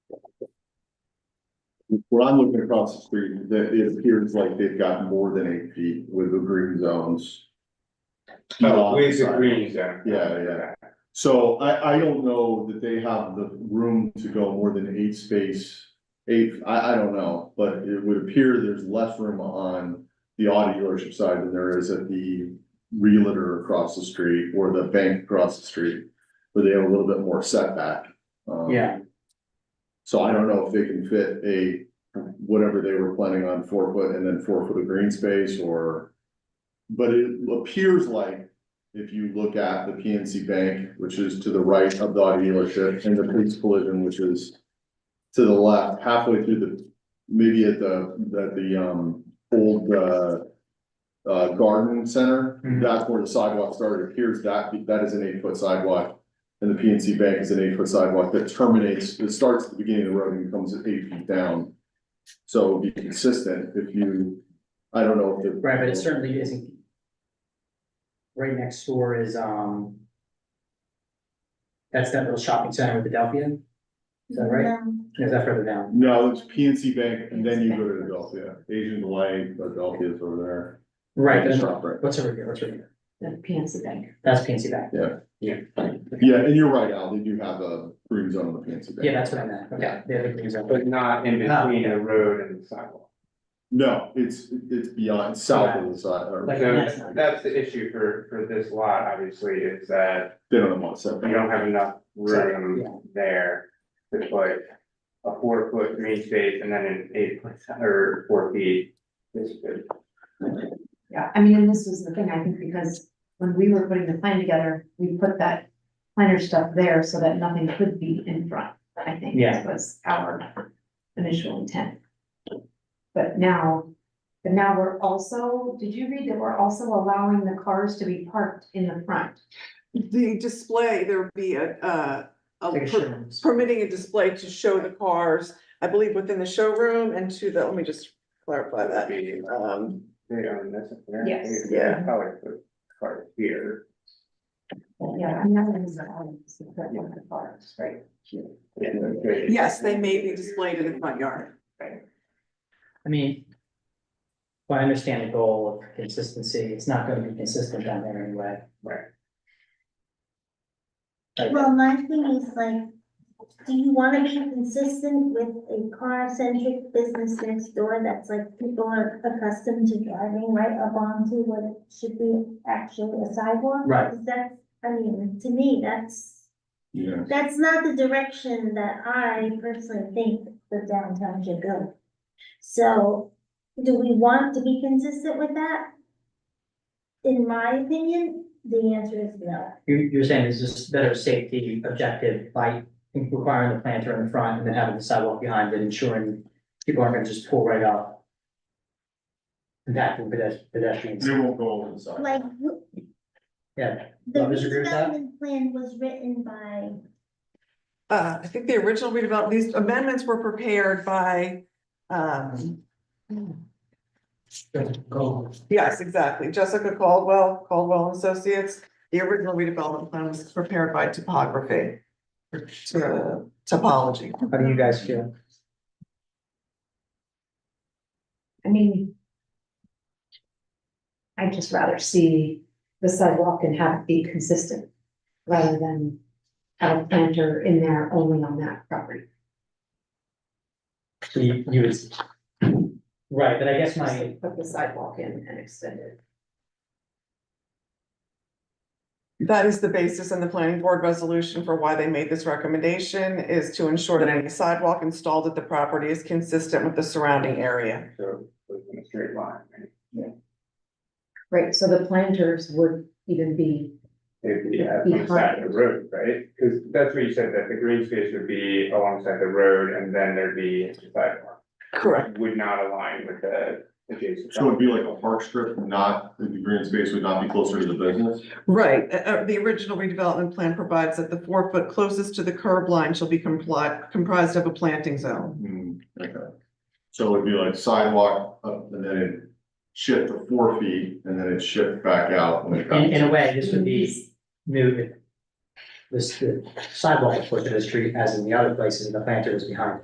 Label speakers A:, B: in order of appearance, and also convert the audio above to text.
A: When I'm looking across the street, that it appears like they've got more than eight feet with the green zones.
B: Oh, with the
A: Beyond
B: green zone.
A: Yeah, yeah. So I, I don't know that they have the room to go more than eight space, eight, I, I don't know, but it would appear there's less room on the auto dealership side than there is at the realtor across the street or the bank across the street, where they have a little bit more setback. Um,
C: Yeah.
A: So I don't know if they can fit a, whatever they were planning on four foot and then four foot of green space or. But it appears like if you look at the PNC Bank, which is to the right of the auto dealership, and the police collision, which is to the left, halfway through the, maybe at the, at the, um, old, uh, uh, garden center,
C: Mhm.
A: that's where the sidewalk started, It appears that, that is an eight-foot sidewalk. And the PNC Bank is an eight-foot sidewalk that terminates, it starts at the beginning of the road and comes eight feet down. So it'd be consistent if you, I don't know if the.
C: Right, but it certainly isn't. Right next door is, um. That's that little shopping center with Adelphia, Is that right? is that further down?
A: No, it's PNC Bank, and then you go to Adelphia, Asian Delight, Adelphia is over
C: Right,
A: there.
C: there's-
A: Shop right.
C: what's over here, what's over here?
D: The PNC Bank.
C: That's PNC Bank,
A: Yeah, and you're right, Al, they do have a green zone on the PNC Bank.
C: yeah, that's what I meant, okay,
D: Yeah.
C: the other green zone.
B: But not in
C: Not-
B: between the road and the sidewalk.
A: No, it's, it's beyond, south of the side, or
C: Like-
B: So that's the issue for, for this lot, obviously, is that
A: they don't want
B: you
A: setback.
B: don't have enough
C: Yeah.
B: room there. To put a four foot green space and then an eight foot or four feet. This is-
D: Yeah, I mean, and this was the thing, I think, because when we were putting the plan together, we put that planner stuff there so that nothing could be in front, I think.
C: Yeah.
D: Was our initial intent. But now, but now we're also, did you read that we're also allowing the cars to be parked in the front?
E: The display, there would be a, uh, a
C: Like a
E: per-
C: showroom.
E: permitting a display to show the cars, I believe within the showroom and to the, let me just clarify that.
B: uh, They
E: Um,
B: own this. there.
D: Yes.
B: They- they Probably put cars here.
D: Yeah, I mean, that was the element, is to put one of the cars, right? here.
B: and they-
E: yes, they may be displayed in the front yard.
C: I mean. Well, I understand the goal of consistency, it's not gonna be consistent down there anyway.
B: Right.
C: Like,
F: Well, my thing is like, do you wanna be consistent with a car-centric business next door that's like people are accustomed to driving right up onto what should be actually a sidewalk?
C: Right.
F: Because that's, I mean, to me, that's,
A: Yeah,
F: that's not the direction that I personally think the downtown should go. So, do we want to be consistent with that? In my opinion, the answer is no.
C: You, you're saying it's just better safety objective by requiring the planter in the front and then having the sidewalk behind it, ensuring people aren't gonna just pull right up. Impacting pedes- pedestrians,
A: they won't go over the side.
F: Like,
C: yeah,
F: The
C: Well, I disagree with that.
F: redevelopment plan was written by,
E: Uh, I think the original redevelopment, these amendments were prepared by, um,
C: go,
E: yes, exactly, Jessica Caldwell, Caldwell and Associates. The original redevelopment plan was prepared by topography, or to- topology.
C: how do you guys feel?
D: I mean. I'd just rather see the sidewalk and have it be consistent, rather than have a planter in there only on that property.
C: So You, you would. Right, but I guess my,
D: Put the sidewalk in and extend it.
E: That is the basis in the planning board resolution for why they made this recommendation is to ensure that any sidewalk installed at the property is consistent with the surrounding area.
B: So, it's in a straight line, right?
D: Right, so the planters would even be,
B: It'd be yeah, alongside the road, right? Because that's what you said, that the green space would be alongside the road and then there'd be a sidewalk.
E: Correct.
B: Would not align with the adjacent.
A: So it'd be like a park strip, not, the green space would not be closer to the business.
E: Right, uh, uh, the original redevelopment plan provides that the four foot closest to the curb line shall be compli comprised of a planting zone.
A: Hmm, okay. So it'd be like sidewalk up and then it shift to four feet and then it shift back out. when it
C: in, in a
A: comes.
C: way, this would be new. if This the sidewalk was put to the street as in the other places, and the planter was behind.